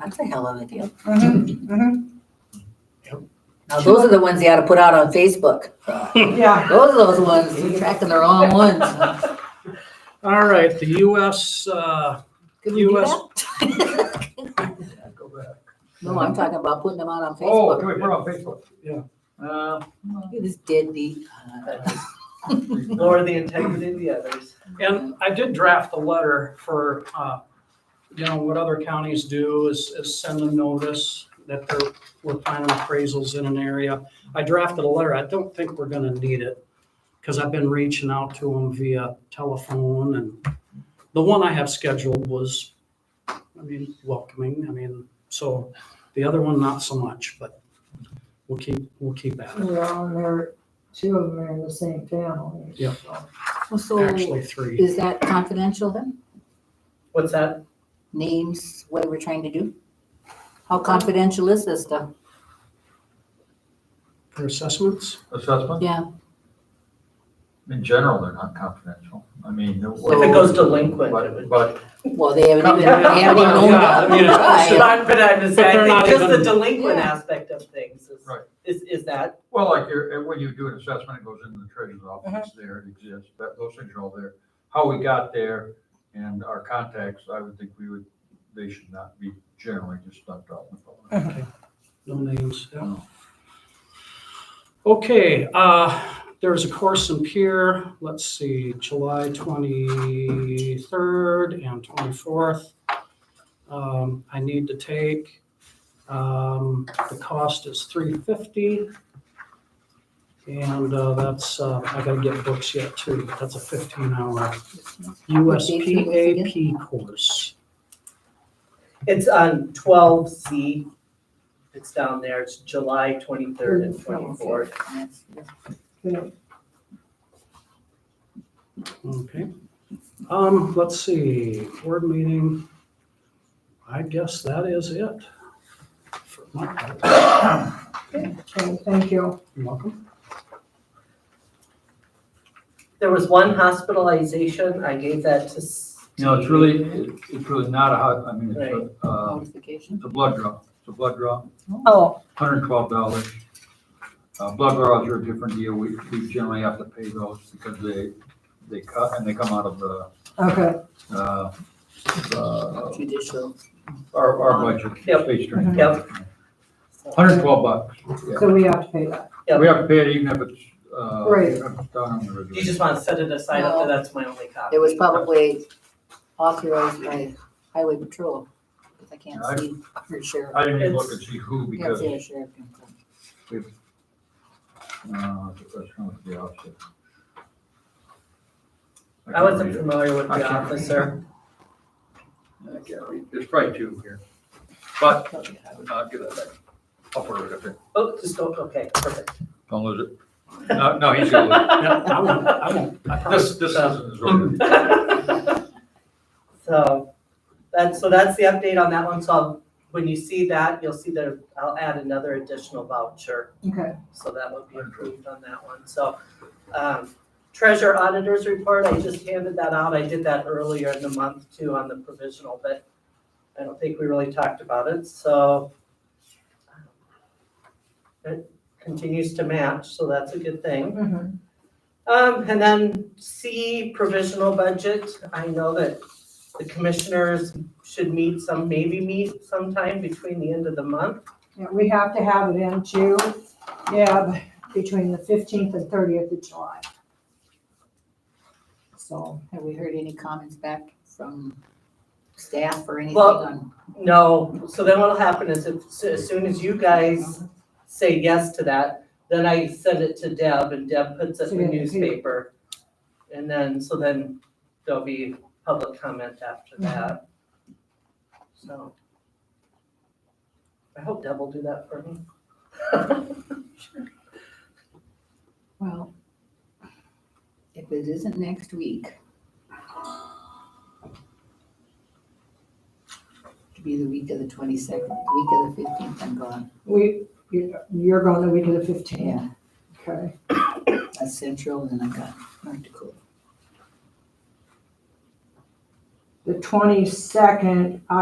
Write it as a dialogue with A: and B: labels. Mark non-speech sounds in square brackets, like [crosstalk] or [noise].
A: That's a hell of a deal.
B: Mhm,
A: Now, those are the ones you ought to put out on Facebook.
B: mhm. Yeah,
A: Those are those ones, you're tracking the wrong ones.
C: All right, the US, uh,
A: Could we do
C: US
A: that?
C: [laughs]
A: No, I'm talking about putting them out on
D: Oh,
A: Facebook.
D: can we put it on Facebook?
C: Yeah.
D: Uh,
A: It is deadbeat.
B: lower the integrity of the others.
C: and I did draft a letter for, uh, you know, what other counties do is, is send a notice that they're, we're planning appraisals in an area. I drafted a letter. I don't think we're gonna need it, because I've been reaching out to them via telephone and the one I have scheduled was, I mean, welcoming. I mean, so the other one, not so much, but we'll keep, we'll keep at it.
E: Well, and they're, two of them are in the same family.
C: Yeah.
E: so.
A: Well, So
C: Uh, Actually, three.
A: is that confidential then?
B: What's that?
A: Names, what we're trying to do? How confidential is this stuff?
C: For assessments?
D: assessment?
A: Yeah.
D: In general, they're not confidential. I mean. If
B: If it goes delinquent, it would.
D: But, but
A: Well, they haven't even, they haven't even owned
C: Yeah, I mean, it's-
B: [laughs] But
A: up.
B: I'm, but I'm just
C: But
B: saying,
C: they're
B: I
C: not
B: think just the
C: even-
B: delinquent
A: Yeah.
B: aspect of things is,
D: Right.
B: is, is that,
D: Well, like you're, when you do an assessment, it goes into the treasurer's
B: Uh-huh.
D: office there, it exists, that, those things are all there. How we got there and our contacts, I would think we would, they should not be generally just dumped out in the public.
B: Uh-huh.
C: No names, yeah.
D: No.
C: Okay, uh, there's a course in Pier, let's see, July twenty-third and twenty-fourth. Um, I need to take, um, the cost is three fifty. And, uh, that's, uh, I gotta get books yet too, that's a fifteen hour USPAP course.
B: it's on twelve C. It's down there, it's July twenty-third and twenty-fourth.
C: [laughs] Okay. Um, let's see, board meeting. I guess that is it. for my part.
E: Okay, thank you.
C: You're welcome.
B: There was one hospitalization, I gave that to Steve.
D: You know, it's really, it's really not a hot, I mean,
B: Right.
D: it's a, uh,
A: Notification.
D: it's a blood draw, it's a blood draw.
B: Oh,
D: hundred and twelve dollars. Uh, blood draws are a different deal, we, we generally have to pay those because they, they cut and they come out of the,
E: Okay,
D: uh, the,
A: Judicial.
D: our, our budget.
B: Yep.
D: Page three.
B: Yep.
D: Hundred and twelve bucks,
E: so we have to pay that.
B: Yep.
D: we have to pay it even if it's, uh.
E: Right.
D: if it's Down on the reserve.
B: You just want to set it aside,
A: No.
B: that's my only copy.
A: It was probably authorized by highway patrol, because I can't
D: Yeah, I-
A: see for sure.
D: I didn't even look and see who
A: Can't
D: because,
A: see a sheriff. can come.
D: uh, that's kind of the opposite.
B: I wasn't
D: can't read
B: familiar with
D: I
B: the
D: can't read it.
B: officer.
D: it. I can't read. Uh, There's probably two here, but, uh, give that back. I'll put it up here.
B: Oh, just go, okay, perfect.
D: Don't lose it. No, no, he's gonna lose
C: [laughs]
D: it.
C: Yeah, I won't, I won't. I promise.
D: This, this isn't as relevant.
B: So, that's, so that's the update on that one, so I'll- when you see that, you'll see that I'll add another additional voucher,
E: Okay,
B: so that will be approved on that one, so. um, Treasurer auditors report, I just handed that out, I did that earlier in the month too on the provisional, but I don't think we really talked about it, so. um, It continues to match, so that's a good thing.
E: mhm,
B: Um, and then C, provisional budget. I know that the commissioners should meet some, maybe meet sometime between the end of the month.
E: yeah, we have to have it in too, yeah, between the fifteenth and thirtieth of July. So,
A: Have we heard any comments back from staff or anything
B: Well-
A: on?
B: No, so then what'll happen is if, so as soon as you guys say yes to that, then I send it to Deb and Deb puts it in the newspaper. And then, so then there'll be public comment after that. So. I hope Deb will do that for me.
A: Well, if it isn't next week. Could be the week of the twenty-second, week of the fifteenth, I'm gone.
E: we, you- you're going the week of the fifteenth, okay?
A: That's central and then I got North Dakota.
E: The twenty-second,